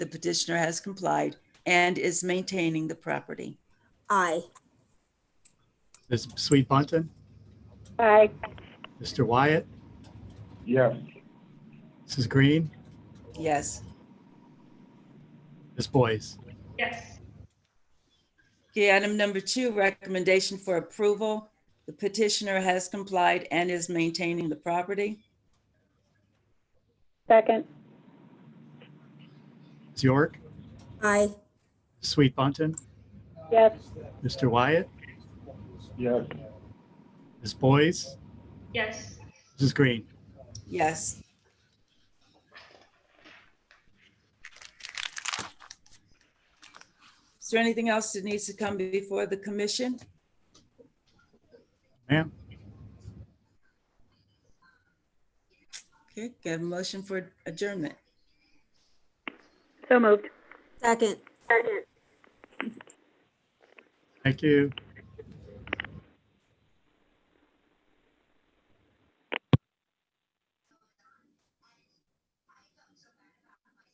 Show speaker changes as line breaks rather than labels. the petitioner has complied and is maintaining the property.
Aye.
Ms. Sweet Bunton,
Aye.
Mr. Wyatt,
yes,
Mrs. Green,
Yes.
Ms. Boyce.
Yes.
Okay, item number two, recommendation for approval. The petitioner has complied and is maintaining the property.
Second.
Ms. York,
Aye.
Sweet Bunton,
Yes.
Mr. Wyatt,
yes,
Ms. Boyce,
Yes.
Mrs. Green.
Yes. Is there anything else that needs to come before the commission?
Ma'am,
Okay, get a motion for adjournment.
So moved.
Second.
thank you.